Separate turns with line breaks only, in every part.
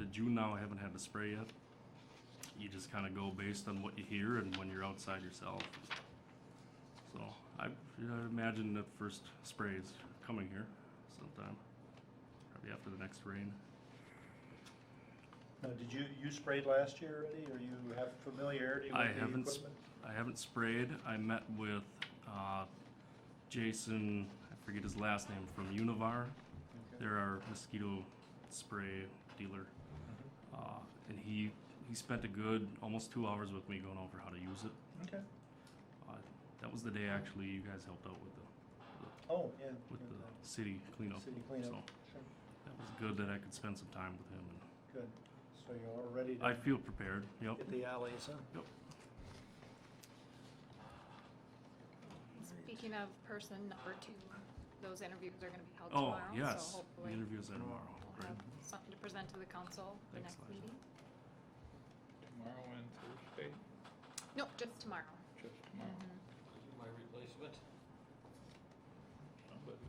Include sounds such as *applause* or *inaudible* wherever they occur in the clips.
of June now, I haven't had to spray yet. You just kinda go based on what you hear and when you're outside yourself. So, I, I imagine the first spray is coming here sometime, probably after the next rain.
Now, did you, you sprayed last year already, or you have familiarity with
I
the equipment?
haven't sp- I haven't sprayed. I met with uh, Jason, I forget his last name, from Univar.
Okay.
They're our mosquito spray dealer. Uh, and he he spent a good almost two hours with me going over how to use it.
Mm-hmm. Okay,
Uh, that was the day actually you guys helped out with the
oh, yeah.
with
yeah,
the city cleanup.
City cleanup,
So
sure,
that was good that I could spend some time with him. And
good. So you're all ready
I
to
feel prepared. Yep.
hit the alleys, huh?
Yep.
Speaking of person number two, those interviews are gonna be held
Oh
tomorrow,
yes,
so
the
hopefully
interviews are tomorrow.
we'll
Right.
have something to present to the council the
Thanks,
next
Liza.
meeting.
Tomorrow and Thursday,
No, just tomorrow. Mm-hmm.
just tomorrow.
My replacement?
Somebody.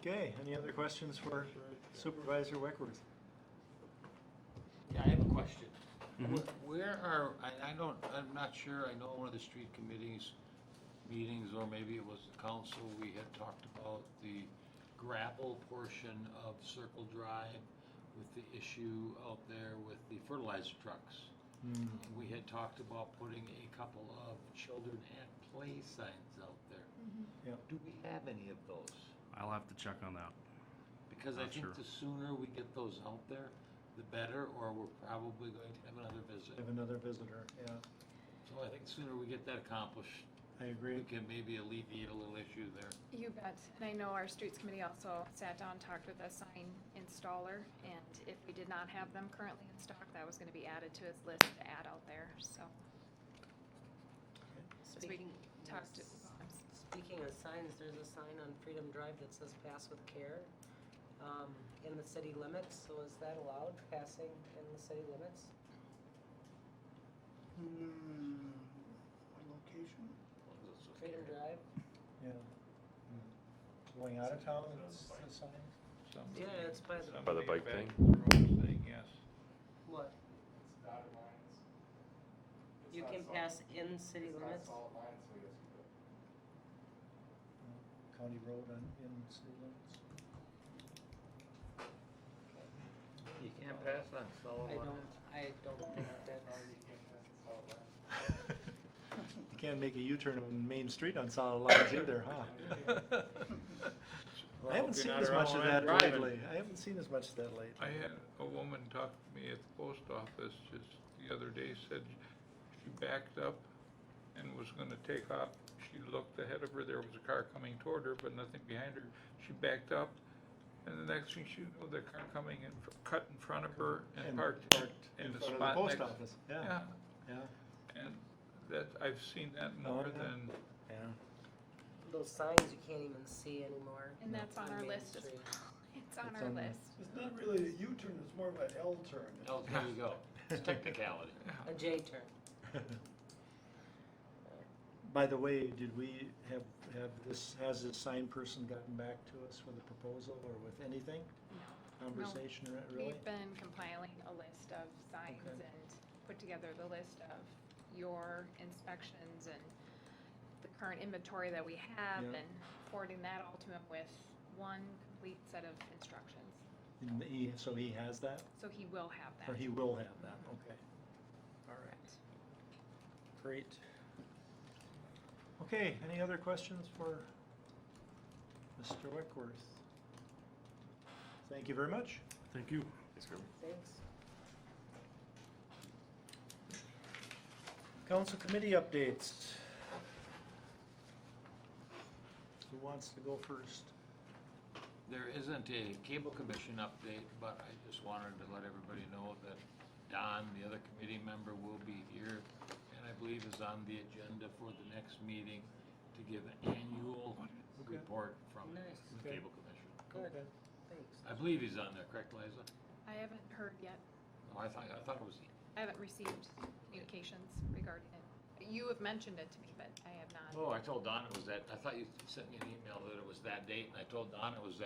Okay, any other questions for Supervisor Weckworth?
Yeah, I have a question.
Mhm.
Wh- Where are, I, I don't, I'm not sure, I know one of the street committees meetings, or maybe it was the council, we had talked about the gravel portion of Circle Drive with the issue out there with the fertilizer trucks.
Mm.
Mm-hmm.
And We had talked about putting a couple of children at play signs out there.
Yeah.
Do we have any of those?
I'll have to check on that.
Because I
Not sure.
think the sooner we get those out there, the better, or we're probably going to have another visit.
I have another visitor, yeah,
So I think the sooner we get that accomplished,
I agree.
we can maybe alleviate a little issue there.
You bet. And I know our streets committee also sat down, talked with a sign installer, and if we did not have them currently in stock, that was gonna be added to his list to add out there, so. as we
Speaking,
talked to-
speaking of signs, there's a sign on Freedom Drive that says pass with care, um, in the city limits, so is that allowed, passing in the city limits?
location?
Freedom Drive?
Yeah. Mm. Going out of town, it's the sign?
Yeah, it's by the,
By the
Somebody
bike
back
thing?
to the road Thing, yes.
what? You can pass in city limits?
Mm. County road on, in city limits?
You can't pass on solid
I don't, I don't think that's,
*laughs* You can't make a U-turn on Main Street on solid lines either, *laughs* huh? I haven't seen as much of that lately. I haven't seen as much of that lately.
I had a woman talk to me at the post office just the other day, said she backed up and was gonna take off. She looked ahead of her, there was a car coming toward her, but nothing behind her. She backed up, and the next thing she knew, the car coming in, fr- cut in front of her and parked in the
front of
spot
Post
next-
office, yeah,
Yeah,
yeah,
and that, I've seen that
Oh,
more
yeah.
than,
yeah.
those signs you can't even see anymore.
And that's on our
Main
list as
Street.
*laughs* It's on
It's
our
on the-
list.
It's not really a U-turn, it's more of an L-turn.
Oh, there you go, it's technicality.
A
*laughs*
J turn.
*laughs* By the way, did we have, have this, has this sign person gotten back to us with a proposal or with anything? Conversation, re- really?
We've been compiling a list of signs
Okay.
and put together the list of your inspections and the current inventory that we have
Yeah.
and forwarding that all to him with one complete set of instructions.
And he- So he has that,
So he will have that.
or he will have that, okay. All right. Great. Okay, any other questions for Mr. Wickworth? Thank you very much.
Thank you.
Thanks.
Council committee updates. Who wants to go first?
There isn't a cable commission update, but I just wanted to let everybody know that Don, the other committee member, will be here, and I believe is on the agenda for the next meeting to give an annual
Okay.
report from
Nice.
the
Okay.
cable commission.
Good, thanks.
I believe he's on there, correct, Liza?
I haven't heard yet.
Oh, I thought, I thought it was he.
I haven't received communications regarding it. You have mentioned it to me, but I have not.
Oh, I told Don it was that, I thought you sent me an email that it was that date, and I told Don it was that